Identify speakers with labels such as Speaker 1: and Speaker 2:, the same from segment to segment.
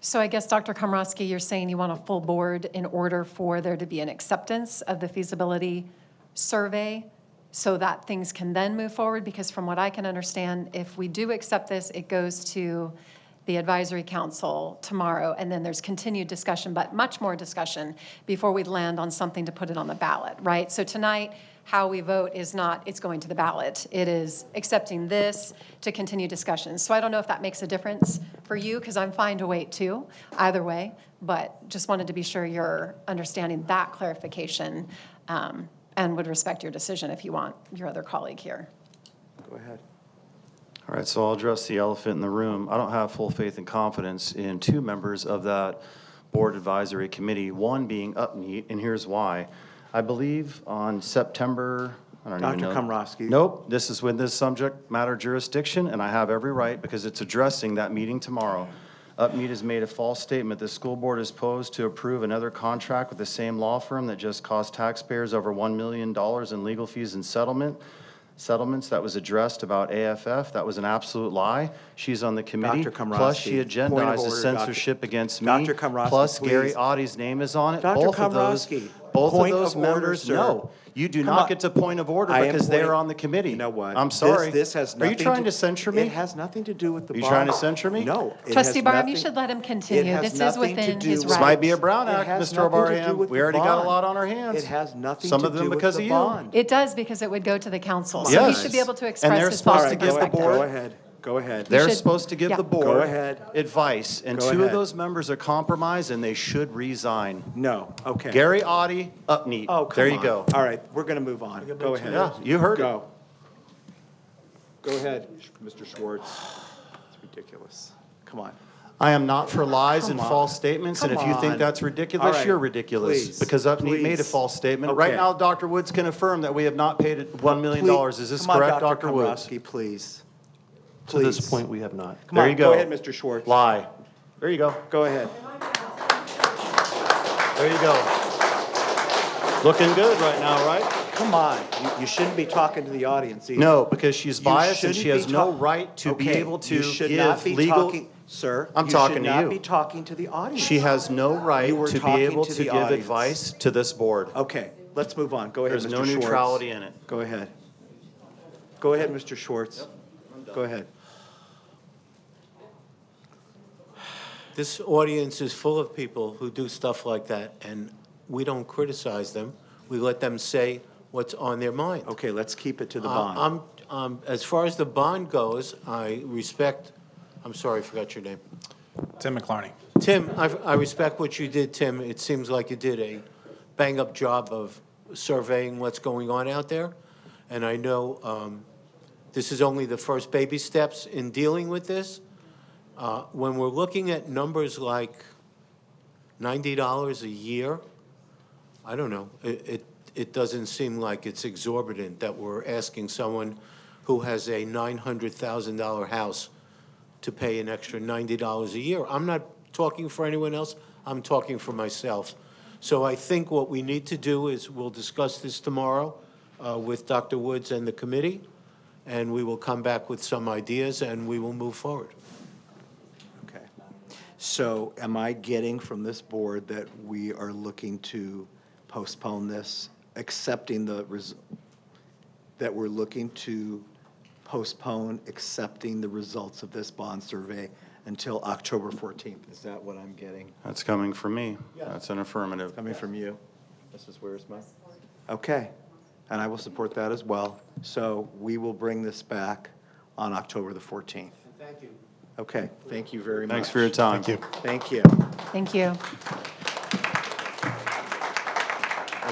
Speaker 1: So I guess, Dr. Komrosky, you're saying you want a full board in order for there to be an acceptance of the feasibility survey so that things can then move forward? Because from what I can understand, if we do accept this, it goes to the advisory council tomorrow, and then there's continued discussion, but much more discussion before we land on something to put it on the ballot, right? So tonight, how we vote is not, it's going to the ballot. It is accepting this to continue discussions. So I don't know if that makes a difference for you, because I'm fine to wait too, either way, but just wanted to be sure you're understanding that clarification um, and would respect your decision if you want your other colleague here.
Speaker 2: Go ahead.
Speaker 3: All right, so I'll address the elephant in the room. I don't have full faith and confidence in two members of that board advisory committee, one being Upmeet, and here's why. I believe on September, I don't even know.
Speaker 2: Dr. Komrovsky.
Speaker 3: Nope, this is within this subject matter jurisdiction, and I have every right because it's addressing that meeting tomorrow. Upmeet has made a false statement. The school board is posed to approve another contract with the same law firm that just cost taxpayers over $1 million in legal fees and settlement settlements that was addressed about AFF. That was an absolute lie. She's on the committee.
Speaker 2: Dr.
Speaker 3: Plus,
Speaker 2: Komrovsky,
Speaker 3: she
Speaker 2: point of
Speaker 3: agendizes
Speaker 2: order, Dr.
Speaker 3: censorship against me.
Speaker 2: Dr. Komrovsky,
Speaker 3: Plus, Gary
Speaker 2: please.
Speaker 3: Audie's name is on it.
Speaker 2: Dr.
Speaker 3: Both of those-
Speaker 2: Komrovsky,
Speaker 3: Both of
Speaker 2: point
Speaker 3: those
Speaker 2: of order,
Speaker 3: members,
Speaker 2: sir.
Speaker 3: no. You do
Speaker 2: Come
Speaker 3: not
Speaker 2: on.
Speaker 3: get to point of order
Speaker 2: I am
Speaker 3: because they are
Speaker 2: pointing-
Speaker 3: on the committee.
Speaker 2: You know what?
Speaker 3: I'm
Speaker 2: This-
Speaker 3: sorry.
Speaker 2: This has nothing.
Speaker 3: Are you trying to censure me?
Speaker 2: It has nothing to do with the
Speaker 3: Are you
Speaker 2: bar.
Speaker 3: trying to censure me?
Speaker 2: No. it has
Speaker 1: Trustee Barham, you
Speaker 2: nothing-
Speaker 1: should let him continue.
Speaker 2: has
Speaker 1: This is
Speaker 2: nothing to
Speaker 1: within
Speaker 2: do
Speaker 1: his
Speaker 2: with-
Speaker 3: This
Speaker 1: right.
Speaker 3: might be a Brown
Speaker 2: It
Speaker 3: Act,
Speaker 2: has nothing
Speaker 3: Mr.
Speaker 2: to do
Speaker 3: Barham.
Speaker 2: with
Speaker 3: We
Speaker 2: the
Speaker 3: already got
Speaker 2: bond.
Speaker 3: a lot on our hands.
Speaker 2: It has nothing
Speaker 3: Some
Speaker 2: to
Speaker 3: of them
Speaker 2: do with
Speaker 3: because
Speaker 2: the
Speaker 3: of you.
Speaker 2: bond.
Speaker 1: It does, because it would go to the council. So he
Speaker 3: Yes.
Speaker 1: should be able to
Speaker 3: And
Speaker 1: express
Speaker 3: they're
Speaker 1: his
Speaker 3: supposed to
Speaker 1: thoughts and
Speaker 3: give the
Speaker 1: perspective.
Speaker 3: board-
Speaker 2: Go ahead, go ahead.
Speaker 3: They're
Speaker 1: should-
Speaker 3: supposed to give
Speaker 1: yeah.
Speaker 3: the board
Speaker 2: Go ahead.
Speaker 3: advice, and
Speaker 2: Go
Speaker 3: two of
Speaker 2: ahead.
Speaker 3: those members are compromised, and they should resign.
Speaker 2: No, okay.
Speaker 3: Gary Audi, Upneat.
Speaker 2: Oh, come
Speaker 3: There you
Speaker 2: on.
Speaker 3: go.
Speaker 2: All right, we're going to move on. Go ahead.
Speaker 3: Yeah, you heard it.
Speaker 2: Go. Go ahead, Mr. Schwartz. It's ridiculous. Come on.
Speaker 3: I am not for lies and
Speaker 2: Come on.
Speaker 3: false statements, and if
Speaker 2: Come
Speaker 3: you think
Speaker 2: on.
Speaker 3: that's
Speaker 2: All
Speaker 3: ridiculous,
Speaker 2: right.
Speaker 3: you're ridiculous.
Speaker 2: Please.
Speaker 3: Because Upneat made a
Speaker 2: Please.
Speaker 3: false statement. Right
Speaker 2: Okay.
Speaker 3: now, Dr. Woods can affirm that we have not paid it $1 million. Is this
Speaker 2: Come on,
Speaker 3: correct, Dr. Woods?
Speaker 2: Komrovsky, please.
Speaker 4: To this
Speaker 2: Please.
Speaker 4: point, we have not.
Speaker 2: Come
Speaker 3: There
Speaker 2: on,
Speaker 3: you go.
Speaker 2: Go ahead, Mr. Schwartz.
Speaker 3: Lie. There you go.
Speaker 2: Go ahead.
Speaker 3: There you go. Looking good right now, right?
Speaker 2: Come on. You, you shouldn't be talking to the audience either.
Speaker 3: No, because she's
Speaker 2: You
Speaker 3: biased and she
Speaker 2: shouldn't
Speaker 3: has
Speaker 2: be
Speaker 3: no
Speaker 2: talk-
Speaker 3: right to be
Speaker 2: Okay,
Speaker 3: able to
Speaker 2: you should not
Speaker 3: give
Speaker 2: be
Speaker 3: legal.
Speaker 2: talking- Sir.
Speaker 3: I'm
Speaker 2: you
Speaker 3: talking
Speaker 2: should
Speaker 3: to
Speaker 2: not
Speaker 3: you.
Speaker 2: be talking to the audience.
Speaker 3: She has no right
Speaker 2: You were
Speaker 3: to be
Speaker 2: talking
Speaker 3: able
Speaker 2: to
Speaker 3: to
Speaker 2: the
Speaker 3: give
Speaker 2: audience.
Speaker 3: advice to this board.
Speaker 2: Okay, let's move on. Go ahead, Mr.
Speaker 3: There's
Speaker 2: Schwartz.
Speaker 3: no neutrality in it.
Speaker 2: Go ahead. Go ahead, Mr. Schwartz. Go ahead.
Speaker 4: This audience is full of people who do stuff like that, and we don't criticize them. We let them say what's on their mind.
Speaker 2: Okay, let's keep it to Oh, the
Speaker 4: Uh,
Speaker 2: bond.
Speaker 4: I'm, um, as far as the bond goes, I respect, I'm sorry, I forgot your name.
Speaker 5: Tim McLarney.
Speaker 4: Tim, I, I respect what you did, Tim. It seems like you did a bang-up job of surveying what's going on out there. And I know um, this is only the first baby steps in dealing with this. Uh, When we're looking at numbers like $90 a year, I don't know, it, it, it doesn't seem like it's exorbitant that we're asking someone who has a $900,000 house to pay an extra $90 a year. I'm not talking for anyone else, I'm talking for myself. So I think what we need to do is, we'll discuss this tomorrow uh, with Dr. Woods and the committee, and we will come back with some ideas, and we will move forward.
Speaker 2: Okay. So am I getting from this board that we are looking to postpone this, accepting the, res- that we're looking to postpone accepting the results of this bond survey until October 14th? Is that what I'm getting?
Speaker 3: That's coming from me. That's an affirmative.
Speaker 2: Coming from you, Mrs. Wiersma? Okay, and I will support that as well. So we will bring this back on October the 14th. Thank you. Okay, thank you very much.
Speaker 3: Thanks for your time. Thank you.
Speaker 2: Thank you.
Speaker 1: Thank you.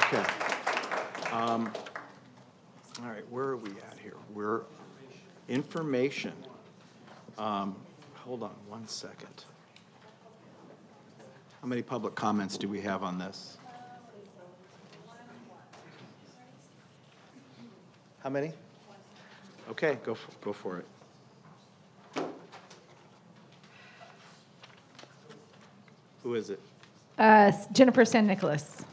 Speaker 2: Okay. Um, All right, where are we at here? We're, information. Um, Hold on one second. How many public comments do we have on this? How many? Okay, go, f- go for it. Who is it?
Speaker 6: Uh, Jennifer San Nicolas.